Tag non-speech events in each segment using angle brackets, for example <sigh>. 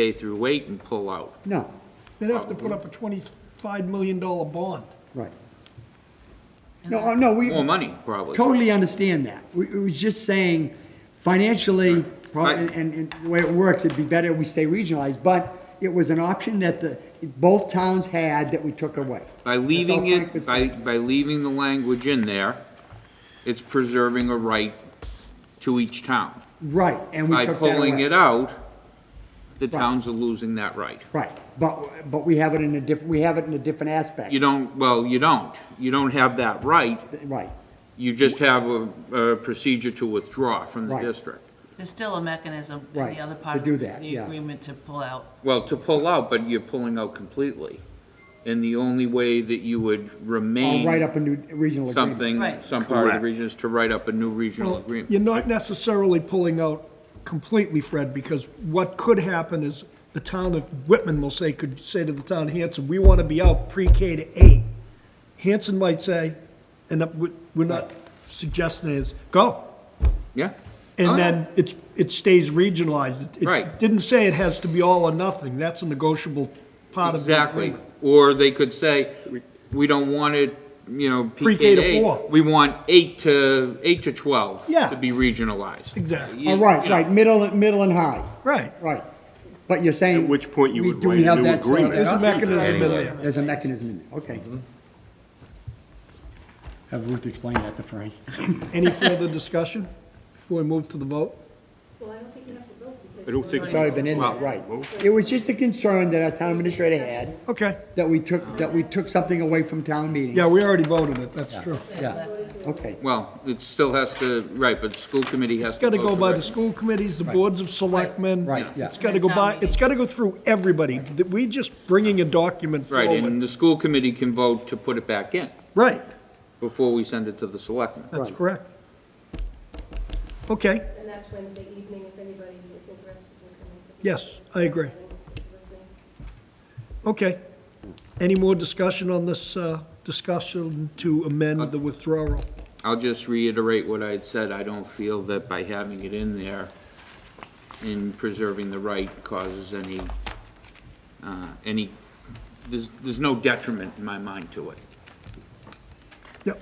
pay through eight and pull out. No, They'd have to put up a twenty-five million dollar bond. right. No, oh, no, we More money, probably. totally understand that. We, it was just saying financially, probably, Right. and, and the way it works, it'd be better if we stay regionalized, but it was an option that the, both towns had that we took away. By leaving That's all Frank was it, by, by leaving the language in there, it's preserving a right to each town. Right, and we By took that pulling away. it out, the towns are losing that right. Right, but, but we have it in a diff, we have it in a different aspect. You don't, well, you don't. You don't have that right. Right, You just have a, a procedure to withdraw from the Right. district. There's still a mechanism in Right, the other to part of do that, the yeah. agreement to pull out. Well, to pull out, but you're pulling out completely. And the only way that you would I'll write remain up a new regional agreement. something, Right. some part of the Correct. region is to write up a new regional Well, agreement. you're not necessarily pulling out completely, Fred, because what could happen is the town of Whitman will say, could say to the town of Hanson, we want to be out pre-K to eight. Hanson might say, and that we- we're not suggesting is, go. Yeah? Oh, And yeah. then it's, it stays regionalized. It- it Right. Didn't say it has to be all or nothing. That's a negotiable part of the Exactly. agreement. Or they could say, we don't want it, you know, Pre-K PK to to eight. four. We want eight to, eight to 12. Yeah. To be regionalized. Exactly, Oh, right, right, middle, middle and high, right. right. But you're saying. At which point you we- would do we write a have new that set agreement. There's a up? mechanism in Anyway. there. There's a mechanism in there, okay. Have Ruth explain that to Frank. Any further discussion before we move to the vote? Well, I don't think you have to vote because. I don't think. It's already been in there, right. It was just a concern that our town administrator had, Okay, that we took, that we took something away from town meeting. yeah, we already voted it, that's true. Yeah, okay, Well, it still has to, right, but the school committee has It's to. gotta go by the direct. school committees, the boards of selectmen. Right, yeah. It's gotta go by, it's gotta go through everybody. That We just bringing a document Right, forward. and the school committee can vote to put it back in Right, before we send it to the selectmen. that's correct. Okay, And that's Wednesday evening if anybody is interested in coming. to the- yes, I agree. Listening. Okay. Any more discussion on this, uh, discussion to Uh, amend the withdrawal? I'll just reiterate what I had said, I don't feel that by having it in there in preserving the right causes any, uh, any, there's, there's no detriment in my mind to it. Yep.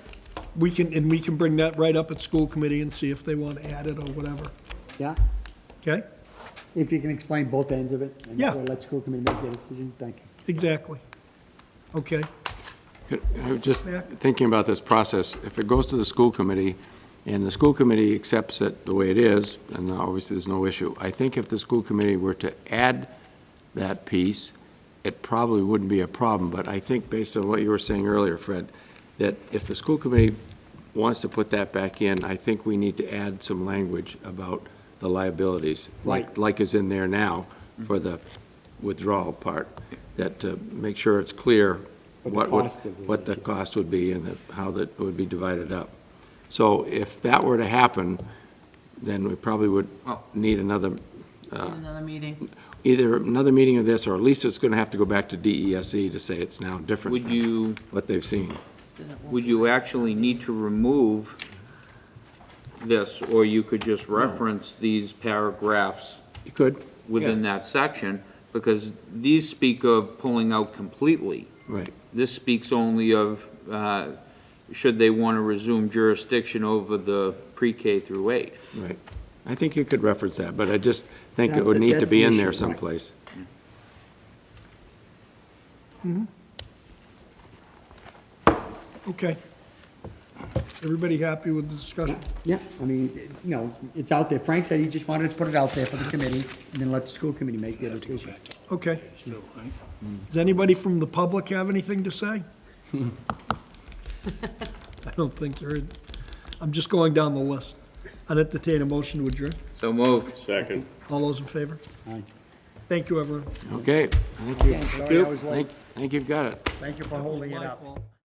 We can, and we can bring that right up at school committee and see if they want to add it or whatever, yeah. okay? If you can explain both ends of it. and Yeah. Let school committee make their decision, thank you. Exactly. Okay, I was Just Yeah. thinking about this process, if it goes to the school committee, and the school committee accepts it the way it is, and obviously there's no issue, I think if the school committee were to add that piece, it probably wouldn't be a problem, but I think based on what you were saying earlier, Fred, that if the school committee wants to put that back in, I think we need to add some language about the liabilities, like, like is in there now for the withdrawal part, that to make sure it's clear What the what would, cost of it what the cost would be and the- how that would be divided up. So if that were to happen, then we probably would need another, in another meeting. either another meeting of this, or at least it's going to have to go back to DESE E to say it's now different. Would than you, What they've seen. would you actually need to remove this, or you could just reference these paragraphs You could, within that section? Because these speak of pulling out completely. right. This speaks only of, uh, should they want to resume jurisdiction over the pre-K through eight. Right. I think you could reference that, but I just think That- it would need to that's the be in issue, there right. someplace. okay. Everybody happy with the discussion? Yeah, I mean, it- you know, it's out there. Frank said he just wanted to put it out there for the committee, and then let the school committee make their decision. Okay. Does anybody from the public have anything to say? <laughs> I don't think there is. I'm just going down the list. I'd entertain a motion to adjourn. So moved. Second. All those in favor? Aye. Thank you, everyone. Okay, thank you. Sorry I was late. Thank- Think you've got it. Thank you for holding it My up. fault.